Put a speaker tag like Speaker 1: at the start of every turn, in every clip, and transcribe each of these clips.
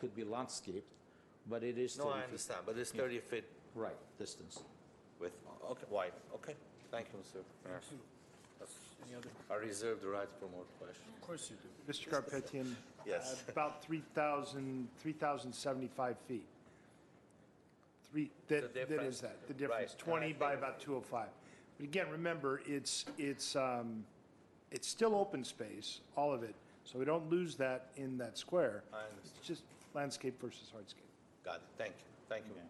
Speaker 1: could be landscaped, but it is 30
Speaker 2: No, I
Speaker 1: feet.
Speaker 2: understand, but it's 30 feet
Speaker 1: Right, distance.
Speaker 2: with, okay, wide, okay. Thank you, Mr. Mayor.
Speaker 3: Oh, Thank you. Any other
Speaker 2: I reserve the right for more questions.
Speaker 3: Of course you do.
Speaker 4: Mr. Garpetian?
Speaker 2: Yes.
Speaker 4: uh, About 3,000, 3,075 feet. Three, that, that
Speaker 2: difference.
Speaker 4: is that, the difference,
Speaker 2: Right, and I
Speaker 4: 20 by
Speaker 2: think-
Speaker 4: about 205. But again, remember, it's, it's, um, it's still open space, all of it, so we don't lose that in that square.
Speaker 2: I understand.
Speaker 4: It's just landscape versus hardscape.
Speaker 2: Got it, thank you, thank you, Mr.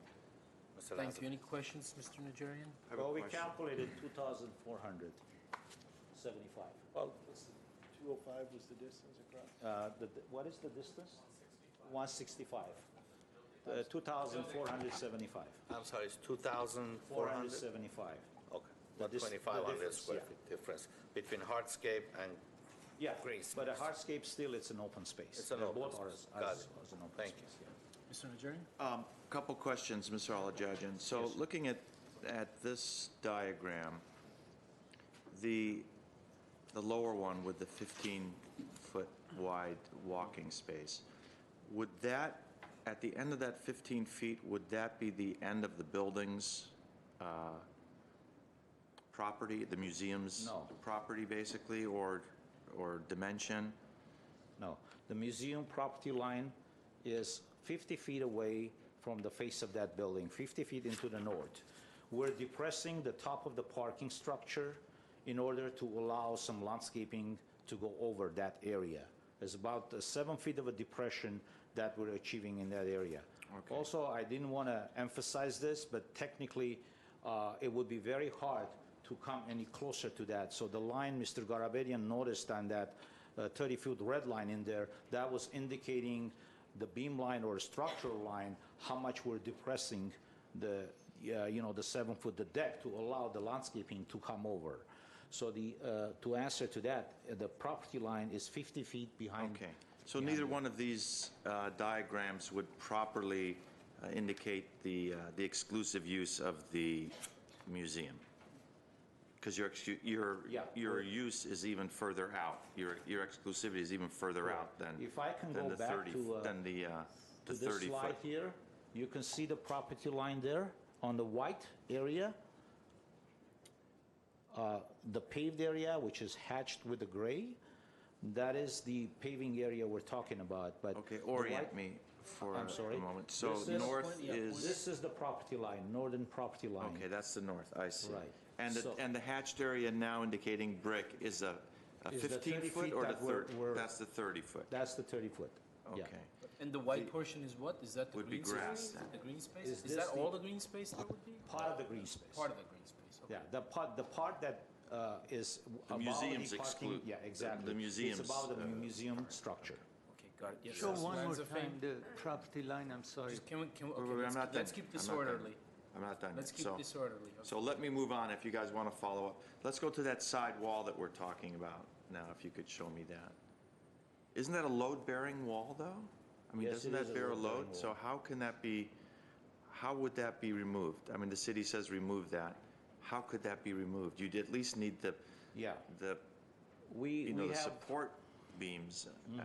Speaker 3: Thank
Speaker 2: Lazar.
Speaker 3: you. Any questions, Mr. Najarian?
Speaker 1: Well, we calculated 2,475.
Speaker 2: Well,
Speaker 5: 205 was the distance across?
Speaker 1: Uh, the- the- What is the distance? 165. Uh, 2,475.
Speaker 2: I'm sorry, it's 2,400?
Speaker 1: 475.
Speaker 2: Okay,
Speaker 1: The
Speaker 2: but
Speaker 1: dis- the
Speaker 2: 2,500
Speaker 1: difference,
Speaker 2: square
Speaker 1: yeah.
Speaker 2: feet difference between hardscape and,
Speaker 1: Yeah,
Speaker 2: Green
Speaker 1: but a
Speaker 2: space.
Speaker 1: hardscape still, it's an open space.
Speaker 2: It's an
Speaker 1: They're
Speaker 2: open
Speaker 1: both are
Speaker 2: space.
Speaker 1: are-
Speaker 2: Got it.
Speaker 1: are an open
Speaker 2: Thank you.
Speaker 1: space, yeah.
Speaker 3: Mr. Najarian?
Speaker 6: Um, Couple questions, Mr. Alajajan. So looking at, at this diagram, the, the lower one with the 15-foot wide walking space, would that, at the end of that 15 feet, would that be the end of the building's uh, property, the museum's?
Speaker 1: No.
Speaker 6: Property, basically, or, or dimension?
Speaker 1: No, the museum property line is 50 feet away from the face of that building, 50 feet into the north. We're depressing the top of the parking structure in order to allow some landscaping to go over that area. It's about uh, seven feet of a depression that we're achieving in that area.
Speaker 6: Okay.
Speaker 1: Also, I didn't want to emphasize this, but technically, uh, it would be very hard to come any closer to that. So the line Mr. Garabedian noticed on that 30-foot red line in there, that was indicating the beam line or structural line, how much we're depressing the, uh, you know, the seven-foot, the deck to allow the landscaping to come over. So the, uh, to answer to that, uh, the property line is 50 feet behind.
Speaker 6: Okay, so neither one of these uh, diagrams would properly uh, indicate the, uh, the exclusive use of the museum? Because your, excu- your,
Speaker 1: Yeah.
Speaker 6: your use is even further out, your, your exclusivity is even further out than.
Speaker 1: If I can
Speaker 6: than
Speaker 1: go
Speaker 6: the
Speaker 1: back
Speaker 6: 30
Speaker 1: to, uh,
Speaker 6: Than the, uh,
Speaker 1: to
Speaker 6: the
Speaker 1: this
Speaker 6: 30
Speaker 1: slide
Speaker 6: foot.
Speaker 1: here, you can see the property line there on the white area. Uh, The paved area, which is hatched with the gray, that is the paving area we're talking about, but.
Speaker 6: Okay,
Speaker 1: the
Speaker 6: orient
Speaker 1: white-
Speaker 6: me for
Speaker 1: I'm sorry.
Speaker 6: a moment. So
Speaker 1: This is-
Speaker 6: north
Speaker 3: yeah,
Speaker 6: is,
Speaker 1: This is the property line, northern property line.
Speaker 6: okay, that's the north, I see.
Speaker 1: Right.
Speaker 6: And, the-
Speaker 1: So-
Speaker 6: and the hatched area now indicating brick is a a
Speaker 1: Is the 30
Speaker 6: 15
Speaker 1: feet
Speaker 6: foot or the
Speaker 1: that we're-
Speaker 6: 30?
Speaker 1: we're-
Speaker 6: That's the 30 foot.
Speaker 1: That's the 30-foot.
Speaker 6: Okay.
Speaker 3: And the white portion is what? Is that the
Speaker 6: Would be
Speaker 3: green space?
Speaker 6: grass then.
Speaker 3: The green space?
Speaker 1: Is
Speaker 3: Is
Speaker 1: this
Speaker 3: that all
Speaker 1: the-
Speaker 3: the green space there would be?
Speaker 1: Part of the green space.
Speaker 3: Part of the green space, okay.
Speaker 1: Yeah, the part, the part that uh, is.
Speaker 6: The
Speaker 1: about
Speaker 6: museums
Speaker 1: the parking-
Speaker 6: exclude-
Speaker 1: Yeah,
Speaker 6: the- the
Speaker 1: exactly.
Speaker 6: museums,
Speaker 1: It's about the
Speaker 6: uh,
Speaker 1: museum structure.
Speaker 3: Okay, got it. Yes,
Speaker 5: Show
Speaker 3: Mr.
Speaker 5: one more
Speaker 3: Lanza, fine.
Speaker 5: time the property line, I'm sorry.
Speaker 3: Just Can we, can we,
Speaker 6: Wait,
Speaker 3: okay,
Speaker 6: wait, wait,
Speaker 3: let's
Speaker 6: I'm not
Speaker 3: keep- let's
Speaker 6: done.
Speaker 3: keep
Speaker 6: I'm
Speaker 3: this
Speaker 6: not done.
Speaker 3: orderly.
Speaker 6: I'm not done.
Speaker 3: Let's
Speaker 6: yet.
Speaker 3: keep
Speaker 6: So-
Speaker 3: this orderly.
Speaker 6: So let me move on if you guys want to follow up. Let's go to that side wall that we're talking about now, if you could show me that. Isn't that a load-bearing wall, though? I mean,
Speaker 1: Yes,
Speaker 6: doesn't
Speaker 1: it is
Speaker 6: that
Speaker 1: a
Speaker 6: bear a
Speaker 1: load-bearing
Speaker 6: load? So how can that be, how would that be removed? I mean, the city says remove that. How could that be removed? You'd at least need the,
Speaker 1: Yeah.
Speaker 6: the,
Speaker 1: We,
Speaker 6: you know,
Speaker 1: we
Speaker 6: the
Speaker 1: have Mm-hmm.
Speaker 6: support beams. Uh,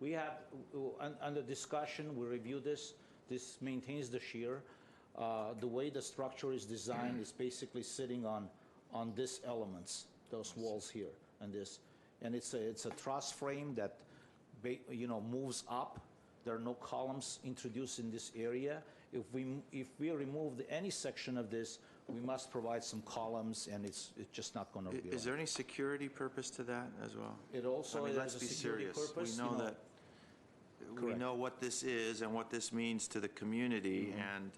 Speaker 1: We have, uh, un- under discussion, we review this, this maintains the shear. Uh, The way the structure is designed is basically sitting on, on these elements, those walls here, and this. And it's a, it's a truss frame that, ba- you know, moves up. There are no columns introduced in this area. If we, m- if we remove any section of this, we must provide some columns, and it's, it's just not going to
Speaker 6: i-
Speaker 1: be.
Speaker 6: Is
Speaker 1: right.
Speaker 6: there any security purpose to that as well?
Speaker 1: It also
Speaker 6: I mean,
Speaker 1: has
Speaker 6: let's
Speaker 1: a
Speaker 6: be
Speaker 1: security
Speaker 6: serious.
Speaker 1: purpose, you
Speaker 6: We know
Speaker 1: know.
Speaker 6: that, we
Speaker 1: Correct.
Speaker 6: know what this is and what this means to the
Speaker 1: Mm-hmm.
Speaker 6: community, and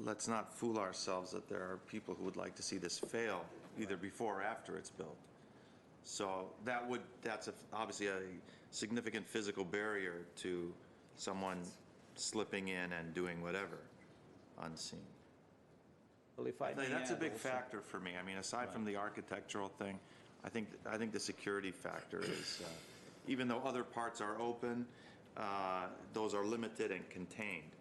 Speaker 6: let's not fool ourselves that there are people who would like to see this fail, either before or after it's built. So that would, that's a- obviously a significant physical barrier to someone slipping in and doing whatever unseen.
Speaker 1: Well, if I
Speaker 6: I think
Speaker 1: may
Speaker 6: that's a
Speaker 1: add
Speaker 6: big
Speaker 1: also-
Speaker 6: factor for me. I mean, aside from the architectural thing, I think, I think the security factor is, uh, even though other parts are open, uh, those are limited and contained.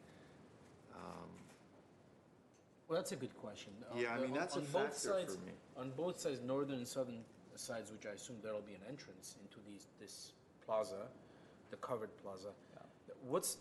Speaker 3: Well, that's a good question. On
Speaker 6: Yeah, I
Speaker 3: the-
Speaker 6: mean, that's
Speaker 3: on
Speaker 6: a
Speaker 3: both
Speaker 6: factor for
Speaker 3: sides-
Speaker 6: me.
Speaker 3: On both sides, northern and southern sides, which I assume there'll be an entrance into these, this plaza, the covered plaza. What's,